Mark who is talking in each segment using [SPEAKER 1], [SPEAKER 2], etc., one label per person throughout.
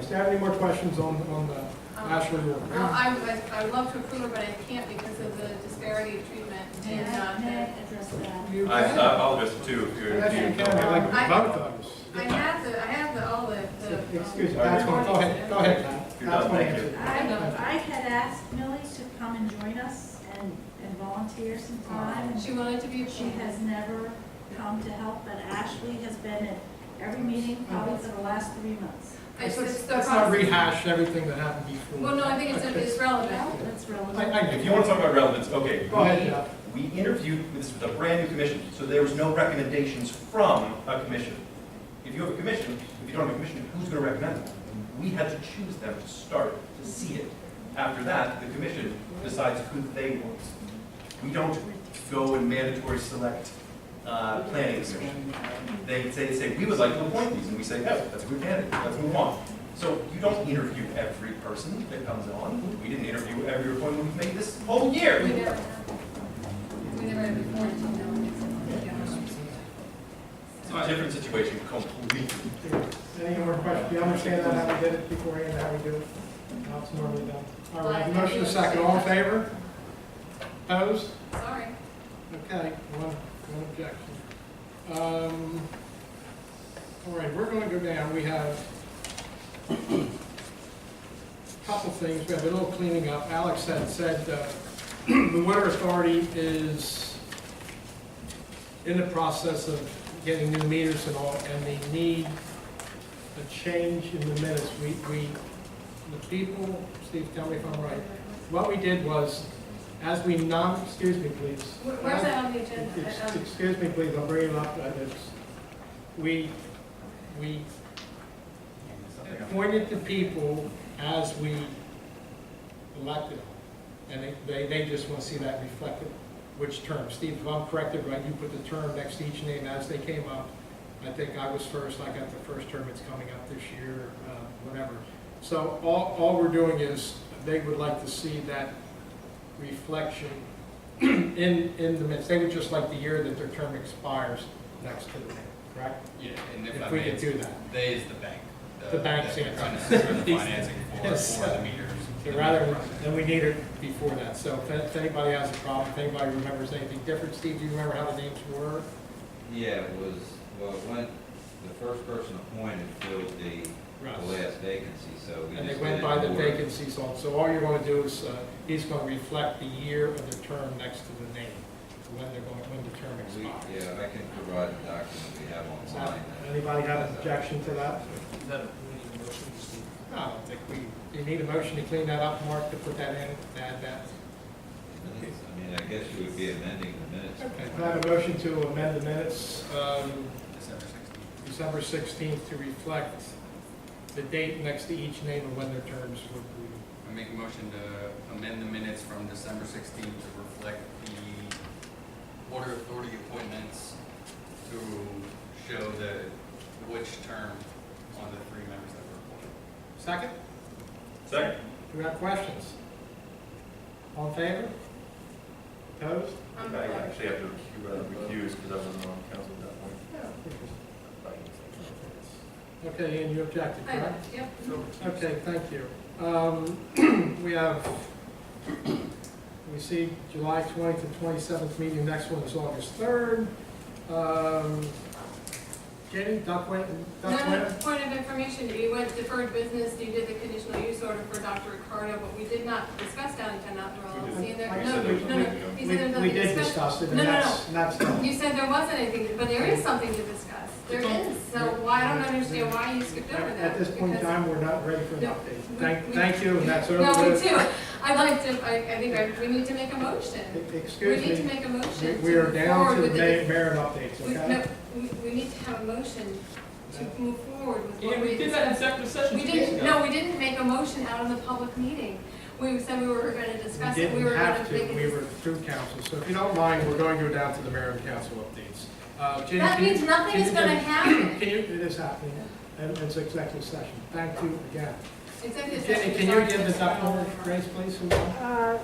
[SPEAKER 1] Do you have any more questions on, on the
[SPEAKER 2] Um,
[SPEAKER 1] Ashley Road?
[SPEAKER 2] Well, I would, I would love to approve it, but I can't because of the disparity of treatment
[SPEAKER 3] May
[SPEAKER 2] and,
[SPEAKER 3] I, may I
[SPEAKER 2] uh,
[SPEAKER 3] address that?
[SPEAKER 1] You
[SPEAKER 4] I
[SPEAKER 1] can.
[SPEAKER 4] I'll address it too, if you're, if
[SPEAKER 1] Yes, you
[SPEAKER 4] you
[SPEAKER 1] can,
[SPEAKER 4] don't
[SPEAKER 1] I
[SPEAKER 4] mind.
[SPEAKER 1] like both
[SPEAKER 2] I have the, I have the, all the, the.
[SPEAKER 1] those.
[SPEAKER 2] um,
[SPEAKER 1] Excuse me, that's one, go ahead, go ahead, Pat.
[SPEAKER 4] You're
[SPEAKER 1] That's
[SPEAKER 4] done,
[SPEAKER 1] one
[SPEAKER 4] thank you.
[SPEAKER 1] answer.
[SPEAKER 3] I, I had asked Millie to come and join us and, and volunteer some time.
[SPEAKER 2] um, She wanted to be,
[SPEAKER 3] She
[SPEAKER 2] she has,
[SPEAKER 3] has never come to help, but Ashley has been at every meeting probably for the last three months.
[SPEAKER 2] it's it's the.
[SPEAKER 1] Let's not
[SPEAKER 2] process.
[SPEAKER 1] rehash everything that happened before.
[SPEAKER 2] Well, no, I think it's, it's relevant.
[SPEAKER 3] That's
[SPEAKER 1] I,
[SPEAKER 3] relevant.
[SPEAKER 1] I.
[SPEAKER 4] If you want to talk about relevance, okay.
[SPEAKER 1] Go ahead, Jeff.
[SPEAKER 4] We we interviewed, this was a brand-new commission, so there was no recommendations from a commission. If you have a commission, if you don't have a commission, who's going to recommend them? We had to choose them to start, to see it. After that, the commission decides who they want. We don't go and mandatory select uh, planning commission. They say, say, we would like to appoint these, and we say, yes, that's a good candidate, let's move on. So you don't interview every person that comes on. We didn't interview every appointment we've made this whole year.
[SPEAKER 2] We never, we never had before until now. and it's-
[SPEAKER 4] It's a different situation completely.
[SPEAKER 1] Any more questions? Do you understand that, how we did it beforehand, how we do it? Now it's normally done. All right, motion is second, all in favor? Opposed?
[SPEAKER 2] Sorry.
[SPEAKER 1] Okay, one, one objection. Um, All right, we're gonna go down, we have a couple things, we have a little cleaning up. Alex had said, uh, the water authority is in the process of getting new meters and all, and they need a change in the minutes. We, we, the people, Steve, tell me if I'm right, what we did was, as we non, excuse me, please.
[SPEAKER 2] Where- Where's that on the agenda?
[SPEAKER 1] Ex-
[SPEAKER 2] Uh, um,
[SPEAKER 1] Excuse me, please, I'll bring it up, uh, it's, we, we appointed the people as we elected them. And they- they, they just want to see that reflected, which term, Steve, if I'm corrected, right, you put the term next to each name as they came up. I think I was first, I got the first term, it's coming up this year, uh, whatever. So all, all we're doing is, they would like to see that reflection in, in the minutes. They would just like the year that their term expires next to the name, correct?
[SPEAKER 5] Yeah, and if
[SPEAKER 1] If
[SPEAKER 5] I
[SPEAKER 1] we
[SPEAKER 5] may,
[SPEAKER 1] could
[SPEAKER 5] it's,
[SPEAKER 1] do that.
[SPEAKER 5] they is the bank.
[SPEAKER 1] The bank's
[SPEAKER 5] that we're
[SPEAKER 1] answer.
[SPEAKER 5] trying to secure the financing for,
[SPEAKER 1] Yes.
[SPEAKER 5] for the meters.
[SPEAKER 1] So rather, than we need it before that, so if- if anybody has a problem, if anybody remembers anything different, Steve, do you remember how the names were?
[SPEAKER 6] Yeah, it was, well, it went, the first person appointed filled the, the last vacancy, so we just.
[SPEAKER 1] And they
[SPEAKER 6] did
[SPEAKER 1] went
[SPEAKER 6] it
[SPEAKER 1] by the
[SPEAKER 6] for-
[SPEAKER 1] vacancies on, so all you're gonna do is, uh, he's gonna reflect the year of the term next to the name, when they're going, when the term
[SPEAKER 6] we-
[SPEAKER 1] expires.
[SPEAKER 6] Yeah, I can provide the document we have
[SPEAKER 1] Is
[SPEAKER 6] online.
[SPEAKER 1] that- Anybody have an objection to that?
[SPEAKER 7] That we need a motion to see.
[SPEAKER 1] No, I don't think we, you need a motion to clean that up, Mark, to put that in, to add that.
[SPEAKER 6] I mean, I guess you would be amending the minutes.
[SPEAKER 1] Okay, can I have a motion to amend the minutes, um,
[SPEAKER 5] December 16th.
[SPEAKER 1] December 16th to reflect the date next to each name and when their terms were due.
[SPEAKER 5] I make a motion to amend the minutes from December sixteenth to reflect the water authority appointments to show the, which term on the three members that were appointed.
[SPEAKER 1] Second,
[SPEAKER 4] Second?
[SPEAKER 1] do we have questions? All in favor? Opposed?
[SPEAKER 4] I
[SPEAKER 2] I'm-
[SPEAKER 4] actually have to recuse because I wasn't on council at that point.
[SPEAKER 1] Okay, and you objected,
[SPEAKER 2] I-
[SPEAKER 1] correct?
[SPEAKER 2] Yep.
[SPEAKER 1] Okay, thank you. Um, We have, we see July 20th and 27th meeting, next one is August 3rd. Um, Jenny, Duckway,
[SPEAKER 2] No, no,
[SPEAKER 1] Duckway?
[SPEAKER 2] point of information, you went deferred business, you did the conditional use order for Dr. Ricardo, but we did not discuss downtown outdoor
[SPEAKER 4] We
[SPEAKER 2] LLC.
[SPEAKER 4] did.
[SPEAKER 2] and there-
[SPEAKER 1] Like I
[SPEAKER 2] No,
[SPEAKER 1] said, there was
[SPEAKER 2] no, no,
[SPEAKER 4] nothing.
[SPEAKER 2] he said there was
[SPEAKER 1] We we
[SPEAKER 2] nothing to
[SPEAKER 1] did
[SPEAKER 2] discuss.
[SPEAKER 1] discuss it, and
[SPEAKER 2] No, no,
[SPEAKER 1] that's, that's done.
[SPEAKER 2] You said there wasn't anything, but there is something to discuss. There is, so why, I don't understand why you skipped over that.
[SPEAKER 1] At this point in
[SPEAKER 2] because-
[SPEAKER 1] time, we're not ready for an
[SPEAKER 2] No,
[SPEAKER 1] update.
[SPEAKER 2] we-
[SPEAKER 1] Thank,
[SPEAKER 2] we-
[SPEAKER 1] thank you, and that's over.
[SPEAKER 2] No, me
[SPEAKER 1] with.
[SPEAKER 2] too. I'd like to, I, I think I, we need to make a motion.
[SPEAKER 1] E-
[SPEAKER 2] We need
[SPEAKER 1] Excuse
[SPEAKER 2] to
[SPEAKER 1] me,
[SPEAKER 2] make a
[SPEAKER 1] we-
[SPEAKER 2] motion to
[SPEAKER 1] we are
[SPEAKER 2] move
[SPEAKER 1] down
[SPEAKER 2] forward
[SPEAKER 1] to the
[SPEAKER 2] with the.
[SPEAKER 1] ma- merit updates,
[SPEAKER 2] we- no,
[SPEAKER 1] okay?
[SPEAKER 2] We, we need to have a motion to move forward with what
[SPEAKER 7] Yeah, we did that in executive session
[SPEAKER 2] We
[SPEAKER 7] two days
[SPEAKER 2] didn't,
[SPEAKER 7] ago.
[SPEAKER 2] no, we didn't make a motion out of the public meeting. We said we were gonna discuss
[SPEAKER 1] We
[SPEAKER 2] it, we were
[SPEAKER 1] didn't
[SPEAKER 2] gonna
[SPEAKER 1] have to,
[SPEAKER 2] make
[SPEAKER 1] we were
[SPEAKER 2] it.
[SPEAKER 1] through council, so if you don't mind, we're going to go down to the mayor and council updates. Uh, Jenny,
[SPEAKER 2] That
[SPEAKER 1] can you-
[SPEAKER 2] means nothing
[SPEAKER 1] can
[SPEAKER 2] is
[SPEAKER 1] you-
[SPEAKER 2] gonna happen.
[SPEAKER 1] Can you, it is happening, and it's executive session, thank you again.
[SPEAKER 2] Executive
[SPEAKER 1] Jenny,
[SPEAKER 2] session
[SPEAKER 1] can
[SPEAKER 2] is
[SPEAKER 1] you
[SPEAKER 2] not
[SPEAKER 1] give the
[SPEAKER 2] gonna happen.
[SPEAKER 1] document, Grace, please? who wants?
[SPEAKER 8] Uh,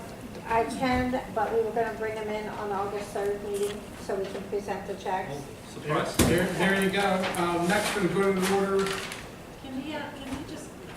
[SPEAKER 8] I can, but we were gonna bring them in on August third meeting, so we can present the checks.
[SPEAKER 5] Oh,
[SPEAKER 4] Surprise.
[SPEAKER 1] There, there you go, um, next we go to the order,
[SPEAKER 3] Can we, uh, can we